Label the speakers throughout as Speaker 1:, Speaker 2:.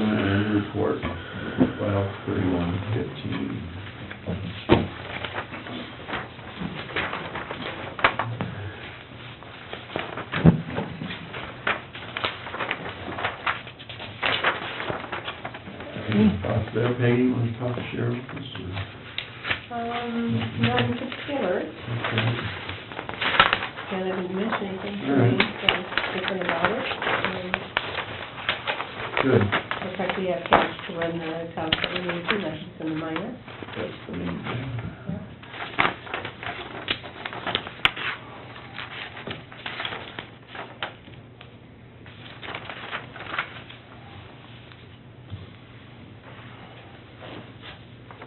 Speaker 1: Seminar report, file thirty-one fifteen. Any thoughts there, Peggy, want to talk to Sheriff?
Speaker 2: Um, not in particular,
Speaker 1: Okay.
Speaker 2: and I didn't mention anything to
Speaker 1: All right.
Speaker 2: me, so different about it. And
Speaker 1: Good.
Speaker 2: In fact, we have cash to run the top that we need to, that's just in the minor.
Speaker 1: That's the main thing.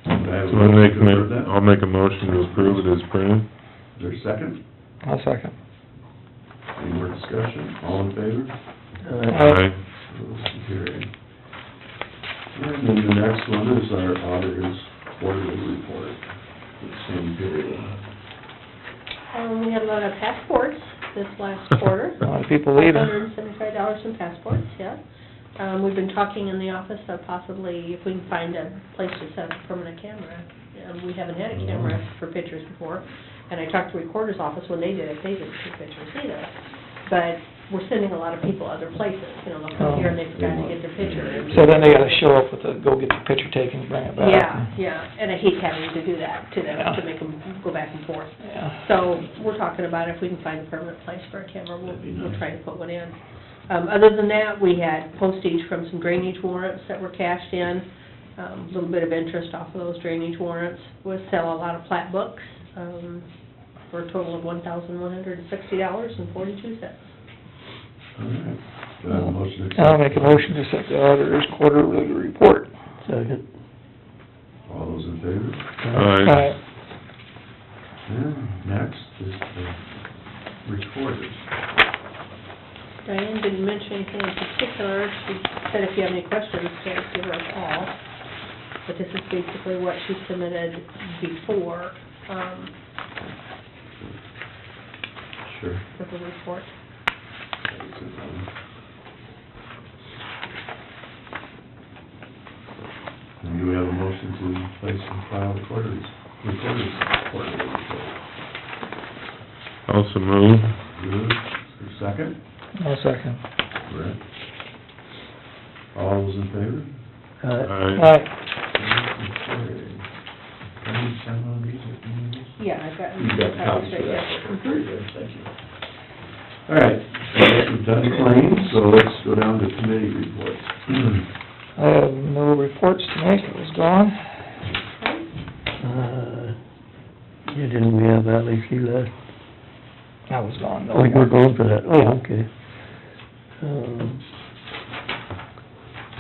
Speaker 3: So I'll make, a
Speaker 1: Approve
Speaker 3: mo-
Speaker 1: that?
Speaker 3: I'll make a motion to approve it as
Speaker 1: Is
Speaker 3: printed.
Speaker 1: there a second?
Speaker 4: I'll second.
Speaker 1: Any more discussion? All in favor?
Speaker 3: Aye.
Speaker 1: Motion carried. And then the next one is our auditor's quarterly report, for the same period.
Speaker 2: Um, we had a lot of passports this last quarter.
Speaker 4: A lot of Uh, people leaving.
Speaker 2: Hundred and seventy-five dollars in passports, yeah. Um, we've been talking in the office of possibly if we can find a place to set up a permanent camera. Um, we haven't had a camera for pictures before, and I talked to recorder's office when they did it, they didn't take pictures either. But we're sending a lot of people other places, you know, they'll come here and they forgot to get their picture.
Speaker 4: So then they gotta show up with the, go get your picture taken, bring it back.
Speaker 2: Yeah, yeah, and I hate having to do that to them, to make them go back and forth.
Speaker 4: Yeah.
Speaker 2: So, we're talking about if we can find a permanent place for a camera, we'll,
Speaker 1: That'd be
Speaker 2: we'll
Speaker 1: nice.
Speaker 2: try to put one in. Um, other than that, we had postage from some drainage warrants that were cashed in, um, a little bit of interest off of those drainage warrants. We sell a lot of plat books, um, for a total of one thousand one hundred and sixty dollars and forty-two cents.
Speaker 1: All right. Do I have a motion to accept?
Speaker 4: I'll make a motion to accept the auditor's quarterly report. Second.
Speaker 1: All those in favor?
Speaker 3: Aye.
Speaker 1: Yeah, next is the recorders.
Speaker 2: Diane didn't mention anything in particular, she said if you have any questions, just give her a call. But this is basically what she submitted before, um,
Speaker 1: Sure.
Speaker 2: for the report.
Speaker 1: And do we have a motion to place and file the quarters, recorders, quarterly report?
Speaker 3: Also move.
Speaker 1: Good, Is there a second?
Speaker 4: I'll second.
Speaker 1: Brett? All those in favor?
Speaker 3: Aye.
Speaker 1: Motion carried. Can you sign one of these if you need this?
Speaker 2: Yeah, I've got.
Speaker 1: You've got copies for that. Very
Speaker 2: Yeah.
Speaker 1: good, thank you. All right, so we've done claims, so let's go down to committee reports.
Speaker 4: I have no reports to make, it was gone.
Speaker 5: Uh, Yeah, didn't we have Ally She last?
Speaker 4: I was gone though.
Speaker 5: Oh, you were going for that, oh, okay. Um,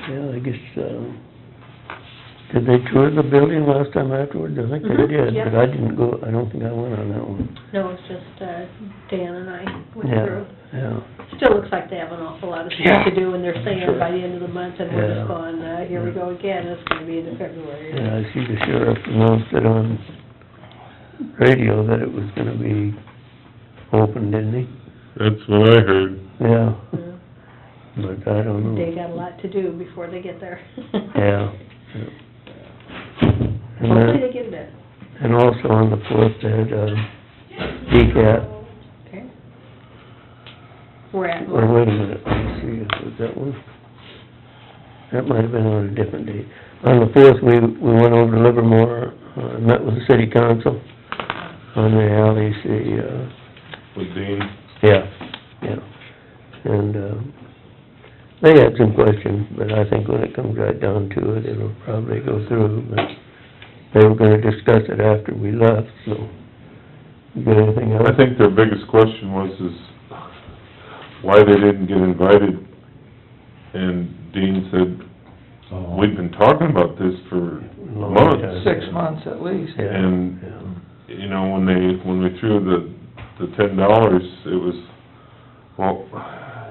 Speaker 5: Yeah, I guess, um, did they tour the building last time afterwards? I think they
Speaker 2: Mhm,
Speaker 5: did,
Speaker 2: yeah.
Speaker 5: but I didn't go, I don't think I went on that one.
Speaker 2: No, it's just, uh, Dan and I went
Speaker 5: Yeah,
Speaker 2: through.
Speaker 5: yeah.
Speaker 2: Still looks like they have an awful lot of
Speaker 4: Yeah.
Speaker 2: stuff to do, and they're saying
Speaker 4: Sure.
Speaker 2: by the end of the month, and we're
Speaker 5: Yeah.
Speaker 2: just going, uh, here we go again, it's gonna be into February.
Speaker 5: And I see the sheriff announced it on radio that it was gonna be open, didn't he?
Speaker 3: That's what I heard.
Speaker 5: Yeah,
Speaker 2: Yeah.
Speaker 5: but I don't know.
Speaker 2: Uh, They got a lot to do before they get there.
Speaker 5: Yeah. yeah. And that-
Speaker 2: Hopefully they get it done.
Speaker 5: And also on the fourth, they had, uh, DCAT,
Speaker 2: Okay. We're at,
Speaker 5: or wait a minute, let me see, if it was that one? That might have been on a different day. On the fourth, we, we went over to Livermore, uh, and met with the city council on the alleys, the, uh,
Speaker 3: With Dean.
Speaker 5: yeah, yeah. And, um, they had some questions, but I think when it comes right down to it, it'll probably go through, but they were gonna discuss it after we left, so. You got anything else?
Speaker 3: I think their biggest question was is why they didn't get invited. And Dean said,
Speaker 1: Oh.
Speaker 3: we've been talking about this for
Speaker 5: Long
Speaker 3: months.
Speaker 5: time.
Speaker 4: Six months at least.
Speaker 5: Yeah,
Speaker 3: And,
Speaker 5: yeah.
Speaker 3: you know, when they, when we threw the, the ten dollars, it was, well,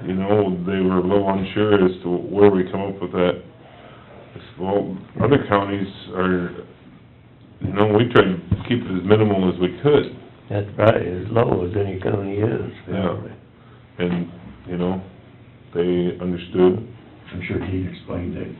Speaker 3: you know, they were a little unsure as to where we come up with that. I said, Well, other counties are, you know, we tried to keep it as minimal as we could,
Speaker 5: That's probably as low as any county is.
Speaker 3: Yeah. and, you know, they understood.
Speaker 1: I'm sure he explained it